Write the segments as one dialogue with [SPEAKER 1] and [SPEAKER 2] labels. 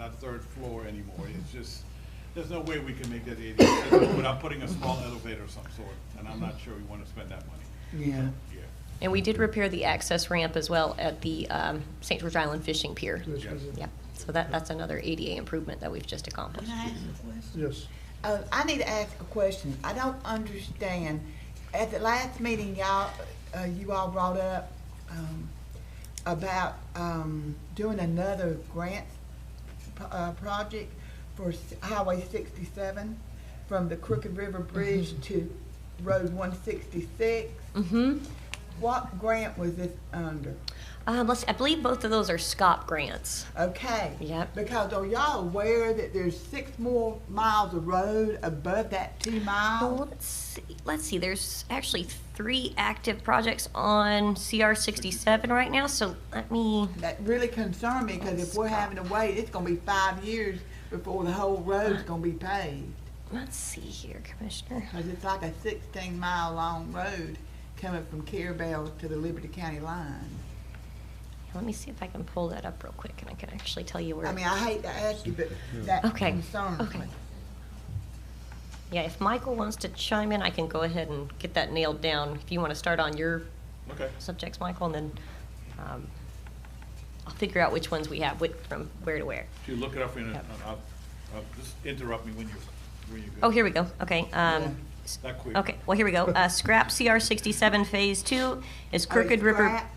[SPEAKER 1] a third floor anymore. It's just, there's no way we can make that ADA accessible without putting a small elevator of some sort, and I'm not sure we want to spend that money.
[SPEAKER 2] Yeah.
[SPEAKER 1] Yeah.
[SPEAKER 3] And we did repair the access ramp as well at the um, St. George Island Fishing Pier.
[SPEAKER 2] Yes, we did.
[SPEAKER 3] Yep, so that, that's another ADA improvement that we've just accomplished.
[SPEAKER 4] Can I ask a question?
[SPEAKER 2] Yes.
[SPEAKER 4] Uh, I need to ask a question. I don't understand. At the last meeting, y'all, uh, you all brought up, um, about, um, doing another grant, p- uh, project for s- Highway sixty-seven from the Crooked River Bridge to Road one sixty-six.
[SPEAKER 3] Mm-hmm.
[SPEAKER 4] What grant was this under?
[SPEAKER 3] Um, let's, I believe both of those are SCOP grants.
[SPEAKER 4] Okay.
[SPEAKER 3] Yep.
[SPEAKER 4] Because are y'all aware that there's six more miles of road above that two miles?
[SPEAKER 3] Well, let's see, let's see, there's actually three active projects on CR sixty-seven right now, so let me,
[SPEAKER 4] that really concerned me, because if we're having to wait, it's gonna be five years before the whole road's gonna be paved.
[SPEAKER 3] let's see here, Commissioner.
[SPEAKER 4] Because it's like a sixteen mile long road coming from Carabel to the Liberty County line.
[SPEAKER 3] Let me see if I can pull that up real quick and I can actually tell you where.
[SPEAKER 4] I mean, I hate to ask you, but that
[SPEAKER 3] Okay,
[SPEAKER 4] concerns
[SPEAKER 3] okay.
[SPEAKER 4] me.
[SPEAKER 3] Yeah, if Michael wants to chime in, I can go ahead and get that nailed down. If you want to start on your
[SPEAKER 1] Okay.
[SPEAKER 3] subjects, Michael, and then um, I'll figure out which ones we have, which, from where to where.
[SPEAKER 1] If you look it up in, a-
[SPEAKER 3] Yep.
[SPEAKER 1] uh, uh, just interrupt me when you, when you go.
[SPEAKER 3] Oh, here we go, okay. um, s-
[SPEAKER 1] That quick.
[SPEAKER 3] Okay, well, here we go. Uh, Scrap CR sixty-seven Phase Two is
[SPEAKER 4] Oh,
[SPEAKER 3] Crooked River.
[SPEAKER 4] scrap?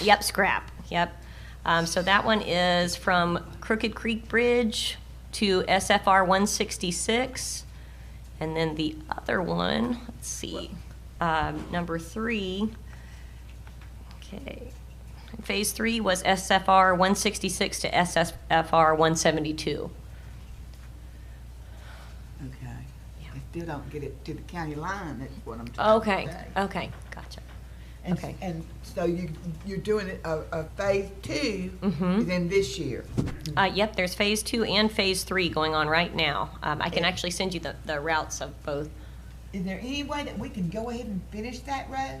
[SPEAKER 3] Yep, scrap, yep. Um, So that one is from Crooked Creek Bridge to SFR 166. And then the other one, let's see, um, number three. Okay. Phase three was SFR 166 to SFR 172.
[SPEAKER 4] Okay.
[SPEAKER 3] Yeah.
[SPEAKER 4] I still don't get it to the county line, that's what I'm trying to
[SPEAKER 3] Okay,
[SPEAKER 4] say.
[SPEAKER 3] okay, gotcha.
[SPEAKER 4] And-
[SPEAKER 3] okay.
[SPEAKER 4] And so you, you're doing it, a, a phase two,
[SPEAKER 3] Mhm.
[SPEAKER 4] then this year.
[SPEAKER 3] Uh, yep, there's phase two and phase three going on right now. Um, I can actually send you the, the routes of both.
[SPEAKER 4] Is there any way that we can go ahead and finish that road?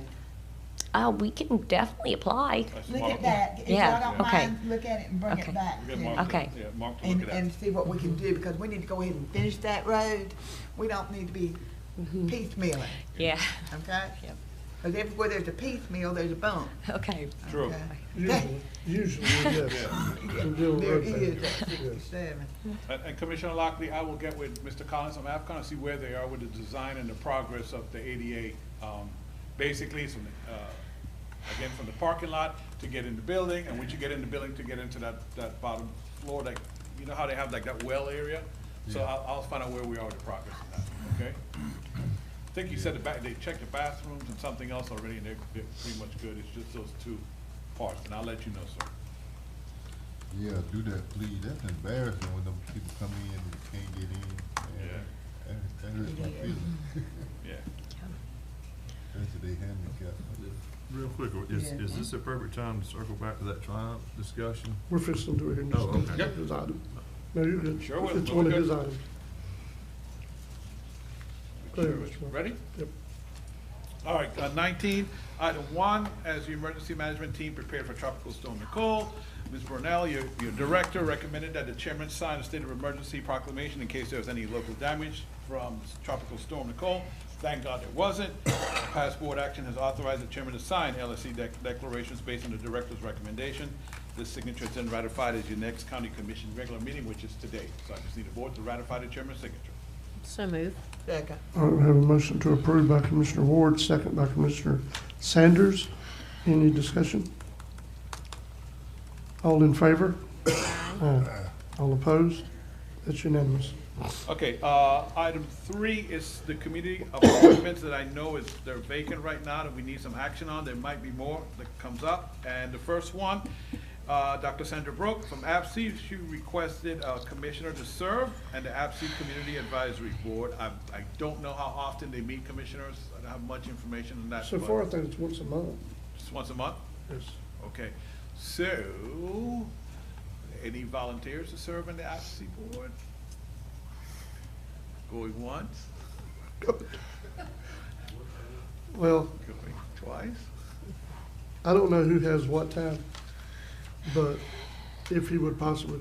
[SPEAKER 3] Uh, we can definitely apply.
[SPEAKER 1] That's
[SPEAKER 4] Look
[SPEAKER 1] Mark.
[SPEAKER 4] at that, if
[SPEAKER 3] Yeah,
[SPEAKER 4] y'all don't
[SPEAKER 3] okay.
[SPEAKER 4] mind, look at it and bring
[SPEAKER 3] Okay.
[SPEAKER 4] it back.
[SPEAKER 1] We got
[SPEAKER 4] to-
[SPEAKER 1] Mark to-
[SPEAKER 3] Okay.
[SPEAKER 1] Yeah, Mark to look
[SPEAKER 4] And,
[SPEAKER 1] it
[SPEAKER 4] and
[SPEAKER 1] up.
[SPEAKER 4] see what we can do, because we need to go ahead and finish that road. We don't need to be piecemealing,
[SPEAKER 3] Yeah.
[SPEAKER 4] okay?
[SPEAKER 3] Mm-hmm. Yep.
[SPEAKER 4] Because everywhere there's a piecemeal, there's a bump.
[SPEAKER 3] Okay.
[SPEAKER 1] True.
[SPEAKER 4] okay?
[SPEAKER 2] Usually, usually, yes. We're doing
[SPEAKER 4] There
[SPEAKER 2] road
[SPEAKER 4] is
[SPEAKER 2] things.
[SPEAKER 4] that sixty-seven.
[SPEAKER 1] And- And Commissioner Lockley, I will get with Mr. Collins on AFCON and see where they are with the design and the progress of the ADA. um, Basically, it's from, the, uh, again, from the parking lot to get in the building, and once you get in the building, to get into that, that bottom floor, like, you know how they have like that well area? So I'll, I'll find out where we are with the progress of that, okay? I think you said the back, they checked the bathrooms and something else already, and they're, they're pretty much good. It's just those two parts, and I'll let you know, sir.
[SPEAKER 5] Yeah, do that, please. That's embarrassing when them people come in and can't get in. Man,
[SPEAKER 1] Yeah.
[SPEAKER 5] That, that hurts my feelings.
[SPEAKER 1] Yeah.
[SPEAKER 5] That's what they handicap.
[SPEAKER 6] Real quick, is,
[SPEAKER 4] Yeah.
[SPEAKER 6] is this the perfect time to circle back to that triumph discussion?
[SPEAKER 2] We're fixing to do it here in just
[SPEAKER 6] Oh, okay.
[SPEAKER 2] a his item. No, you're good.
[SPEAKER 1] Sure will.
[SPEAKER 2] It's one of his
[SPEAKER 1] Good.
[SPEAKER 2] items. Go ahead, Mr. Mark.
[SPEAKER 1] Ready?
[SPEAKER 2] Yep.
[SPEAKER 1] All right, uh, nineteen, item one, as the emergency management team prepared for Tropical Storm Nicole, Ms. Brunel, your, your director recommended that the chairman sign a state of emergency proclamation in case there was any local damage from Tropical Storm Nicole. Thank God it wasn't. Past board action has authorized the chairman to sign LSC dec- declarations based on the director's recommendation. This signature is then ratified as your next county commission regular meeting, which is today. So I just need the board to ratify the chairman's signature.
[SPEAKER 3] So move.
[SPEAKER 4] Second.
[SPEAKER 2] All right, we have a motion to approve by Commissioner Ward, second by Commissioner Sanders. Any discussion? All in favor? Aye. All opposed? That's unanimous.
[SPEAKER 1] Okay, uh, item three is the community appointments that I know is, they're vacant right now, that we need some action on, there might be more that comes up. And the first one, uh, Dr. Sandra Brook from APSI, E, she requested a commissioner to serve and the APSI E Community Advisory Board. I, I don't know how often they meet commissioners, I don't have much information on that.
[SPEAKER 2] So
[SPEAKER 1] but
[SPEAKER 2] far, I think it's once a month.
[SPEAKER 1] Just once a month?
[SPEAKER 2] Yes.
[SPEAKER 1] Okay, so, any volunteers to serve on the advocacy board? Going once,
[SPEAKER 2] Well,
[SPEAKER 1] going twice?
[SPEAKER 2] I don't know who has what time, but if he would possibly